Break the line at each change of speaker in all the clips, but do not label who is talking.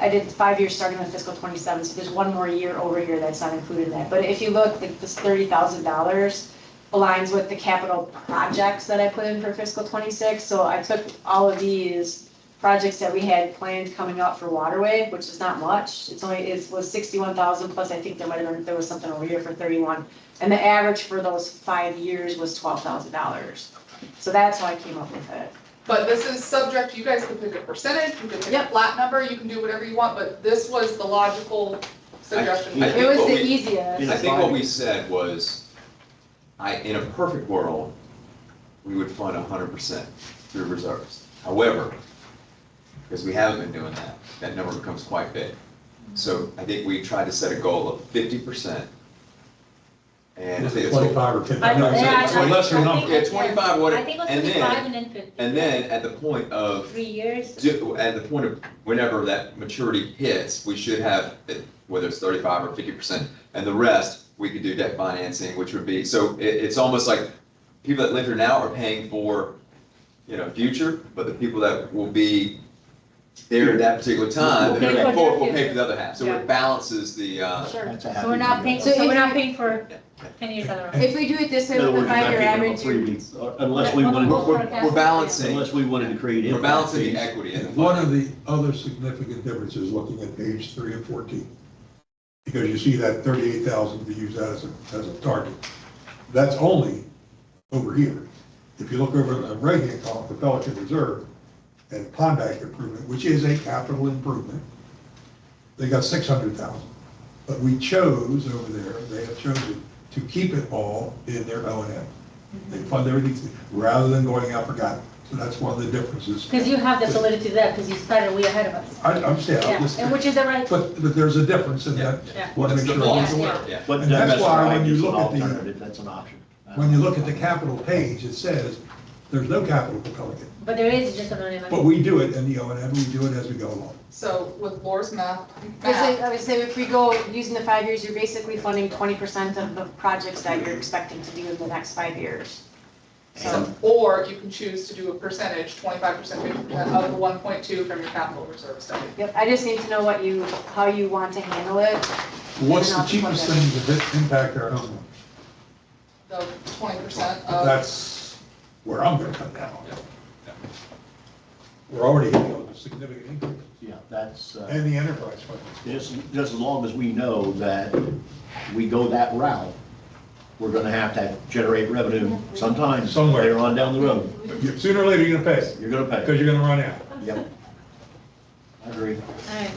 I did five years starting with fiscal twenty-seven, so there's one more year over here that's not included in that. But if you look, like this thirty thousand dollars aligns with the capital projects that I put in for fiscal twenty-six. So I took all of these projects that we had planned coming up for waterway, which is not much. It's only, it was sixty-one thousand plus, I think there might have been, there was something over here for thirty-one. And the average for those five years was twelve thousand dollars. So that's how I came up with it.
But this is subject, you guys can pick a percentage, you can pick a
Yep.
flat number, you can do whatever you want, but this was the logical suggestion.
I- I-
It was
what
the
we-
easiest.
I think what we said was, I, in a perfect world, we would fund hundred percent through reserves. However, because we haven't been doing that, that number becomes quite big. So I think we tried to set a goal of fifty percent. And
Is
it's-
it Twenty-five or fifty.
I-
No, it's a-
yeah,
it's a
I-
lesser
I
number.
yeah, twenty-five, what,
I think it was
and
twenty-five
then,
and then fifty.
and then at the point of
Three years.
do, at the point of whenever that maturity hits, we should have, eh, whether it's thirty-five or fifty percent, and the rest, we could do debt financing, which would be, so it, it's almost like people that live here now are paying for, you know, future, but the people that will be there at that particular time,
Will
they're
pay for
paying for,
their
will pay
future.
for the other half, so
Yeah.
it balances the, uh,
Sure.
That's a happy
So we're not
number.
paying,
So
so
if
we're not
you-
paying for ten years out of
If we do it this way
In other
with the
words, we're not
five-year
picking up
average,
three
you-
weeks, uh, Unless we wanted,
we're, we're- we're balancing,
unless we wanted to create.
we're
impact
balancing the
fees.
equity in the
One
fund.
of the other significant differences, looking at page three and fourteen, because you see that thirty-eight thousand, we use that as a, as a target. That's only over here. If you look over the right-hand column, the Pelican Reserve and Pond Act improvement, which is a capital improvement, they got six hundred thousand. But we chose over there, they have chosen to keep it all in their O and M. They fund everything rather than going out for God. So that's one of the differences.
Because you have the solidity there, because you started way ahead of us.
I I understand, I'm
Yeah,
just,
and which is the right,
but, but there's a difference in that.
Yeah.
Want to
That's
make
the
sure
ball.
everyone's aware.
Yeah.
But
And that's
that's
why when
an
you
option,
look at the-
alternative, That's an option. Uh,
When you look at the capital page, it says, there's no capital for Pelican,
but there is just an anonymous.
but we do it in the O and M, we do it as we go along.
So with Laura's math,
Because I
math,
I would say if we go using the five years, you're basically funding twenty percent of the projects that you're expecting to do in the next five years. So,
um, or you can choose to do a percentage, twenty-five percent, fifty percent of the one point two from your capital reserve study.
yep, I just need to know what you, how you want to handle it.
What's
And
the
I'll just
cheapest
look at
thing to impact our homeowner?
The twenty percent
Uh,
of,
That's where I'm gonna come down on it.
Yeah.
We're already hitting on a significant increase,
Yeah, that's, uh,
and the enterprise fund.
just, just as long as we know that we go that route, we're gonna have to generate revenue sometime.
Somewhere.
Later on down the road,
But you- Sooner or later, you're gonna pay,
you're gonna pay.
because you're gonna run out.
Yep. I agree.
All right.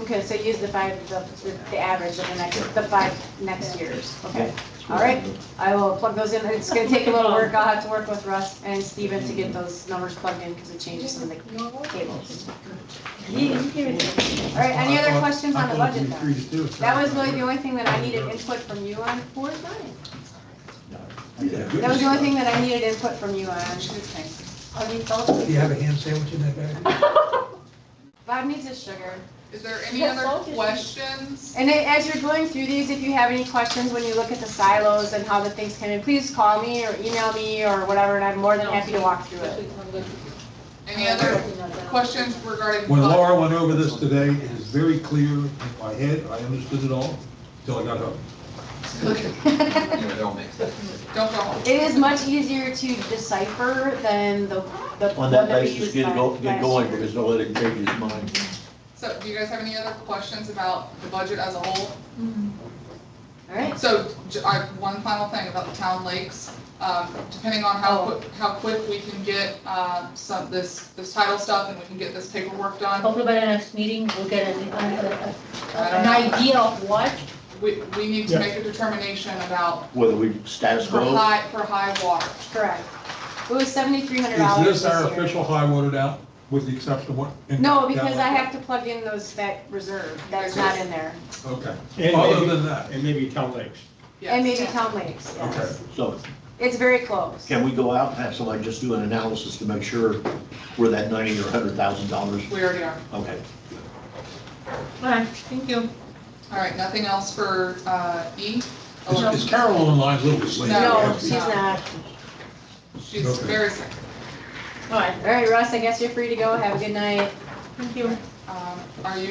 Okay, so use the five, the, the average of the next, the five next years, okay? All right, I will plug those in, it's gonna take a little work, I'll have to work with Russ and Steven to
Mm-hmm.
get those numbers plugged in, because it changes some of the tables. All right,
Uh,
any other questions on the budget then? That was really the only thing that I needed input from you on. Four nine. That was the only thing that I needed input from you on. Any thoughts?
Do you have a ham sandwich in that bag?
Bob needs his sugar.
is there any other questions?
And then as you're going through these, if you have any questions when you look at the silos and how the things come in, please call me or email me or whatever, and I'm more than happy to walk through it.
Any other questions regarding?
When
fund?
Laura went over this today, it is very clear in my head, I understood it all, till I got home.
Anyway, it all makes sense.
Don't go home.
It is much easier to decipher than the, the.
On
one
that
we
basis,
used
get go,
last-
get
last
going,
year.
because don't let it change his mind.
So do you guys have any other questions about the budget as a whole?
Mm-hmm.
All right,
So, j- I, one final thing about the town lakes, um, depending on how,
Oh.
quick- how quick we can get, uh, some, this, this title stuff and we can get this paperwork
Oh.
done.
Hopefully by the next meeting, we'll get an, an- an idea of what.
We, we need
Yeah.
to make a determination about
Whether we status
for
quo,
high, for high water.
correct. It was seventy-three hundred
Is
dollars
this our
year.
official high water out, with the exception of what?
No, because I have to plug in those, that reserve, that's not in there.
Okay,
And
other
maybe,
than that,
and maybe town lakes.
Yes.
And maybe Town Lakes,
okay.
yes.
so
It's very close.
can we go out and have somebody just do an analysis to make sure we're that ninety or hundred thousand dollars?
We already are.
Okay.
All right, thank you.
All right, nothing else for, uh, E?
Is is Carol online a little bit late?
No,
No,
she's
no.
not.
She's
Okay.
very sick.
All right,
All right, Russ, I guess you're free to go. Have a good night.
thank you.
Um, are you